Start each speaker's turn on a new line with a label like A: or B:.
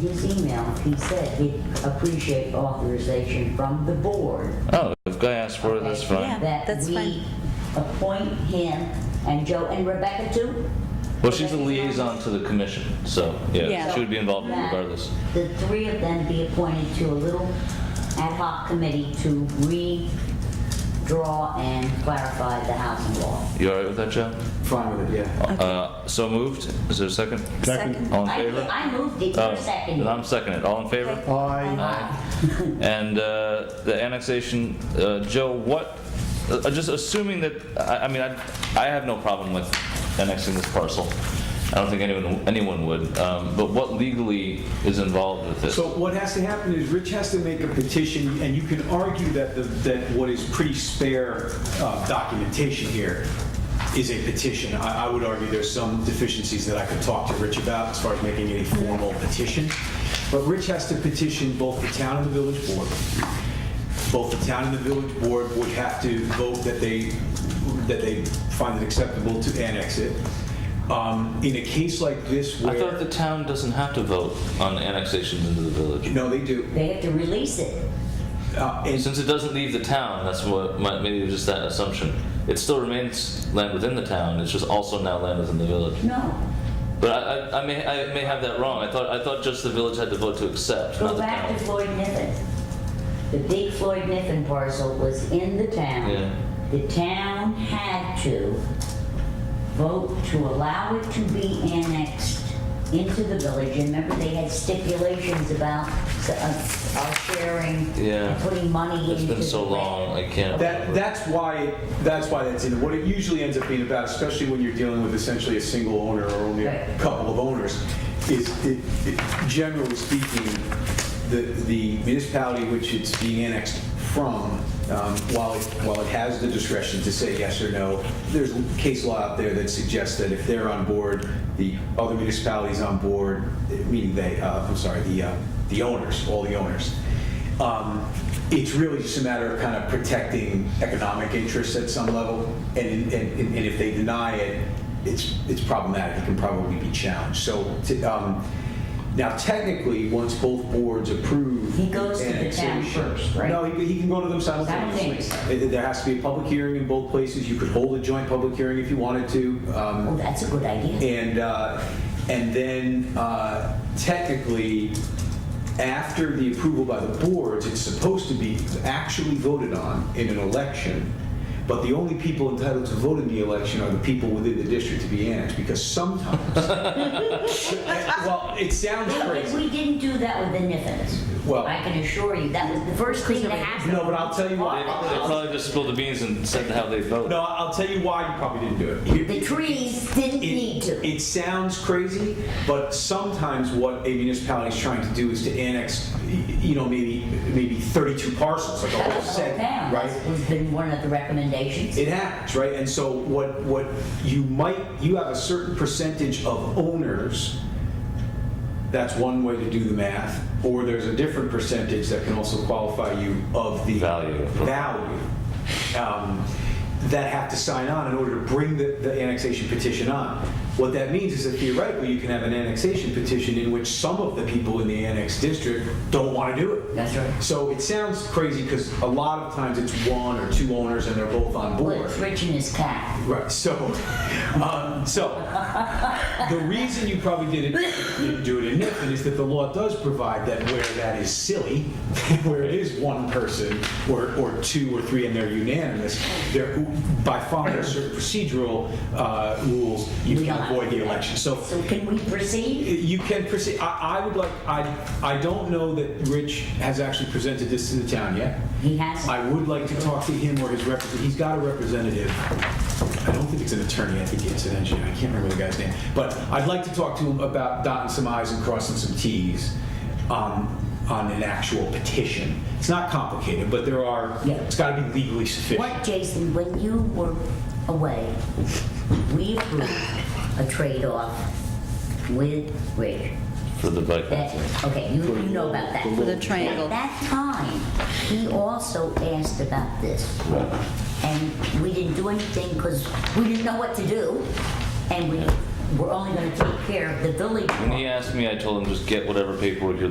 A: his email, he said he'd appreciate authorization from the board.
B: Oh, if Guy asks for it, that's fine.
C: Yeah. that's fine.
A: That we appoint him and Joe and Rebecca too?
B: Well, she's a liaison to the commission, so, yeah,
C: Yeah.
B: she would be involved regardless.
A: That The three of them be appointed to a little ad hoc committee to redraw and clarify the housing law.
B: You all right with that, Joe?
D: Fine with it, yeah.
B: Uh, So moved. Is there a second?
C: Second.
B: All in
A: I,
B: favor?
A: I moved it,
B: Oh,
A: you're seconding.
B: then I'm seconded. All in favor?
D: I,
B: And uh, the annexation, uh, Joe, what, uh, just assuming that, I I mean, I I have no problem with annexing this parcel. I don't think anyone, anyone would. Um, But what legally is involved with this?
E: So what has to happen is Rich has to make a petition, and you can argue that, the- that what is pretty spare uh, documentation here is a petition. I, I would argue there's some deficiencies that I could talk to Rich about as far as making a formal petition. But Rich has to petition both the town and the village board. Both the town and the village board would have to vote that they, that they find it acceptable to annex it. Um, In a case like this
B: I thought
E: where,
B: the town doesn't have to vote on annexations into the village.
E: no, they do.
A: They have to release it.
E: Uh, and-
B: Since it doesn't leave the town, that's what, my- maybe it was just that assumption. It still remains land within the town, it's just also now land within the village.
A: No,
B: But I, I, I may, I may have that wrong. I thought, I thought just the village had to vote to accept, not
A: Go
B: the
A: back
B: town.
A: to Floyd Niffen. The big Floyd Niffen parcel was in the
B: Yeah.
A: town. The town had to vote to allow it to be annexed into the village. And remember, they had stipulations about s- uh, our sharing,
B: Yeah.
A: and putting money
B: It's
A: into.
B: been so
A: the grant.
B: long, I can't.
E: That,
B: remember.
E: that's why, that's why that's in, what it usually ends up being about, especially when you're dealing with essentially a single owner or only a
A: Right.
E: couple of owners, is, it- it- generally speaking, the, the municipality which it's being annexed from, um, while, it- while it has the discretion to say yes or no, there's case law out there that suggests that if they're on board, the other municipalities on board, meaning they, uh, I'm sorry, the, uh, the owners, all the owners, um, It's really just a matter of kind of protecting economic interests at some level, and, and, and if they deny it, it's, it's problematic, it can probably be challenged. So, t- um, now technically, once both boards approve.
A: He goes to the town
E: annexation-
A: first, right?
E: No, he, he can go to them simultaneously.
A: Simultaneously.
E: Uh, There has to be a public hearing in both places, you could hold a joint public hearing if you wanted to. um,
A: Oh, that's a good idea.
E: and, uh, and then uh, technically, after the approval by the boards, it's supposed to be actually voted on in an election. But the only people entitled to vote in the election are the people within the district to be annexed, because sometimes, well, it sounds
A: Yeah, but
E: crazy.
A: we didn't do that with the Niffens.
E: Well-
A: I can assure you, that was the first thing that happened.
E: No, but I'll tell you
B: They,
E: what.
B: they probably just spilled the beans and said how they vote.
E: No, I'll tell you why you probably didn't do it. Here-
A: The trees didn't need to.
E: It sounds crazy, but sometimes what a municipality is trying to do is to annex, y- you know, maybe, maybe 32 parcels, like a whole set,
A: Down
E: right?
A: has been one of the recommendations.
E: It happens, right? And so what, what you might, you have a certain percentage of owners, that's one way to do the math, or there's a different percentage that can also qualify you of the
B: Value.
E: value um, that have to sign on in order to bring the, the annexation petition on. What that means is that theoretically, you can have an annexation petition in which some of the people in the annexed district don't want to do it.
A: That's right.
E: So it sounds crazy because a lot of times it's one or two owners and they're both on
A: Well,
E: board.
A: it's rich in his cat.
E: Right. So, um, so the reason you probably didn't, didn't do it in Nipton is that the law does provide that where that is silly, where it is one person or, or two or three and they're unanimous, they're, by following certain procedural uh, rules, you
A: We
E: can
A: don't-
E: avoid the election. So
A: So can we proceed?
E: you can proceed, I, I would like, I, I don't know that Rich has actually presented this to the town yet.
A: He has.
E: I would like to talk to him or his representative, he's got a representative. I don't think it's an attorney, I think it's an engineer, I can't remember the guy's name. But I'd like to talk to him about dotting some i's and crossing some t's on, on an actual petition. It's not complicated, but there are,
A: Yeah.
E: it's gotta be legally sufficient.
A: What, Jason, when you were away, we approved a trade-off with Rich.
B: For the bike
A: That,
B: path.
A: okay, you you know about that.
C: the triangle.
A: At that time, he also asked about this. And we didn't do anything because we didn't know what to do. And we we're only gonna take care of the village
B: When he asked me, I told him just get whatever paperwork you're